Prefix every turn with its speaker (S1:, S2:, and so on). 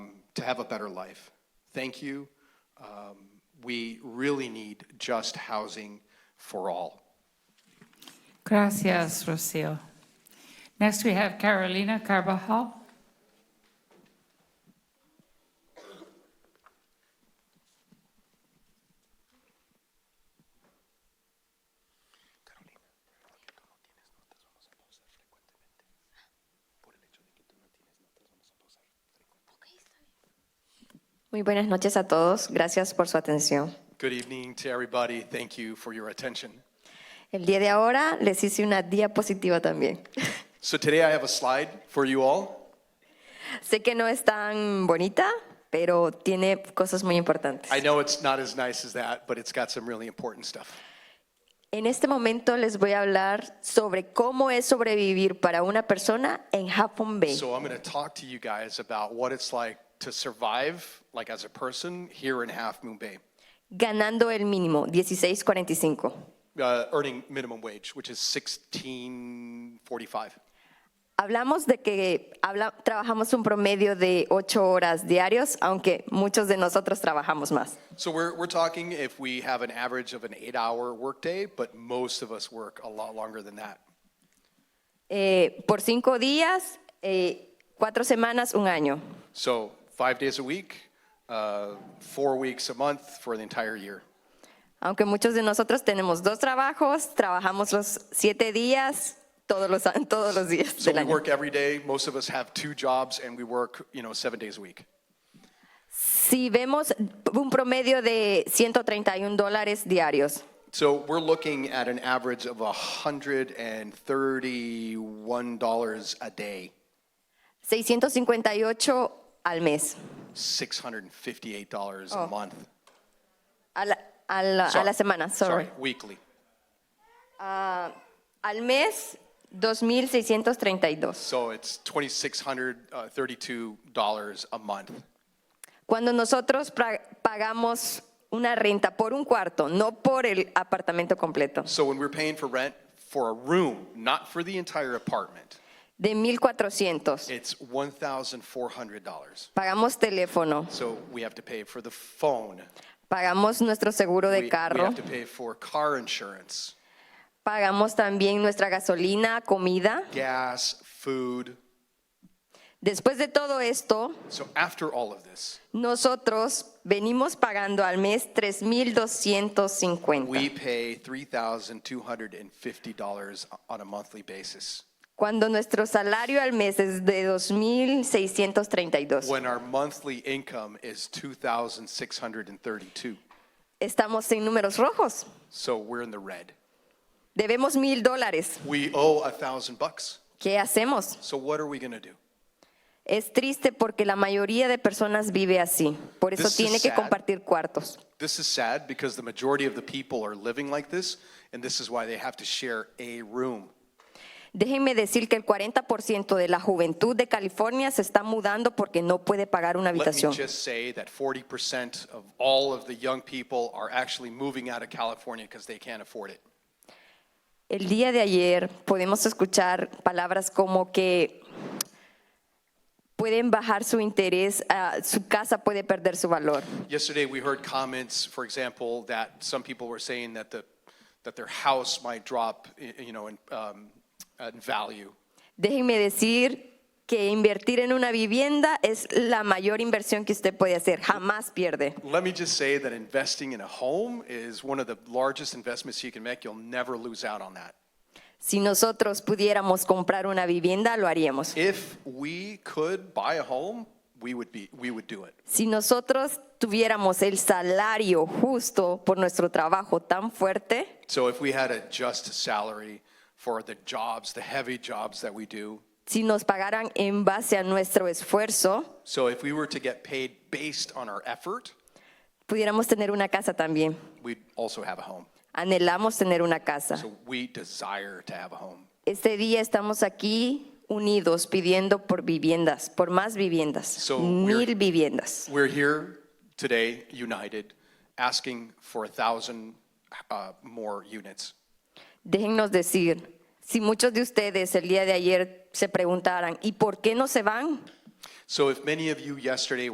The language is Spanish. S1: to have a better life. Thank you. Um, we really need just housing for all.
S2: Gracias, Rocio. Next, we have Carolina Carvajal.
S3: Muy buenas noches a todos. Gracias por su atención.
S1: Good evening to everybody. Thank you for your attention.
S3: El día de ahora les hice una diapositiva también.
S1: So today I have a slide for you all.
S3: sé que no es tan bonita, pero tiene cosas muy importantes.
S1: I know it's not as nice as that, but it's got some really important stuff.
S3: En este momento les voy a hablar sobre cómo es sobrevivir para una persona en Japón Bay.
S1: So I'm going to talk to you guys about what it's like to survive, like as a person, here in Half Moon Bay,
S3: ganando el mínimo, 16.45.
S1: uh, earning minimum wage, which is 16.45.
S3: Hablamos de que habla- trabajamos un promedio de 8 horas diarios, aunque muchos de nosotros trabajamos más.
S1: So we're, we're talking if we have an average of an eight-hour workday, but most of us work a lot longer than that.
S3: Eh, por 5 días, 4 semanas, un año.
S1: So five days a week, uh, four weeks a month for the entire year.
S3: Aunque muchos de nosotros tenemos dos trabajos, trabajamos los 7 días todos los, a- todos los días
S1: So
S3: del
S1: we
S3: año.
S1: work every day. Most of us have two jobs, and we work, you know, seven days a week.
S3: Si vemos un promedio de 131 dólares diarios,
S1: So we're looking at an average of $131 a day,
S3: 658 al mes.
S1: $658 a month.
S3: A la, Oh. a la- a la semana, sorry.
S1: weekly.
S3: Al mes, 2.632.
S1: So it's $2,632 a month.
S3: Cuando nosotros pra- pagamos una renta por un cuarto, no por el apartamento completo,
S1: So when we're paying for rent for a room, not for the entire apartment,
S3: de 1.400.
S1: it's $1,400.
S3: Pagamos teléfono,
S1: So we have to pay for the phone.
S3: pagamos nuestro seguro
S1: We,
S3: de
S1: we
S3: carro,
S1: have to pay for car insurance,
S3: pagamos también nuestra gasolina, comida.
S1: gas, food.
S3: Después de todo esto,
S1: So after all of this,
S3: nosotros venimos pagando al mes
S1: We
S3: 3.250.
S1: pay $3,250 on a monthly basis.
S3: Cuando nuestro salario al mes es de 2.632.
S1: When our monthly income is 2,632.
S3: estamos en números rojos.
S1: So we're in the red.
S3: Debemos mil dólares.
S1: We owe a thousand bucks.
S3: ¿Qué hacemos?
S1: So what are we going to do?
S3: Es triste porque la mayoría de personas vive así. Por eso
S1: This is
S3: tiene que
S1: sad.
S3: compartir cuartos.
S1: This is sad because the majority of the people are living like this, and this is why they have to share a room.
S3: Déjenme decir que el 40% de la juventud de California se está mudando porque no puede pagar una
S1: Let me
S3: habitación.
S1: just say that 40% of all of the young people are actually moving out of California because they can't afford it.
S3: El día de ayer podemos escuchar palabras como que pueden bajar su interés, ah, su casa puede perder su valor.
S1: Yesterday, we heard comments, for example, that some people were saying that the, that their house might drop, i- you know, in, um, in value.
S3: Déjenme decir que invertir en una vivienda es la mayor inversión que usted puede hacer, jamás pierde.
S1: Let me just say that investing in a home is one of the largest investments you can make. You'll never lose out on that.
S3: Si nosotros pudiéramos comprar una vivienda, lo haríamos.
S1: If we could buy a home, we would be, we would do it.
S3: Si nosotros tuviéramos el salario justo por nuestro trabajo tan fuerte,
S1: So if we had a just salary for the jobs, the heavy jobs that we do,
S3: si nos pagaran en base a nuestro esfuerzo,
S1: so if we were to get paid based on our effort,
S3: pudiéramos tener una casa también.
S1: we'd also have a home.
S3: Anhelamos tener una casa.
S1: So we desire to have a home.
S3: Este día estamos aquí unidos pidiendo por viviendas, por más viviendas,
S1: So we're-
S3: mil viviendas.
S1: We're here today, united, asking for a thousand uh, more units.
S3: Déjennos decir, si muchos de ustedes el día de ayer se preguntaran, ¿y por qué no se van?
S1: So if many of you yesterday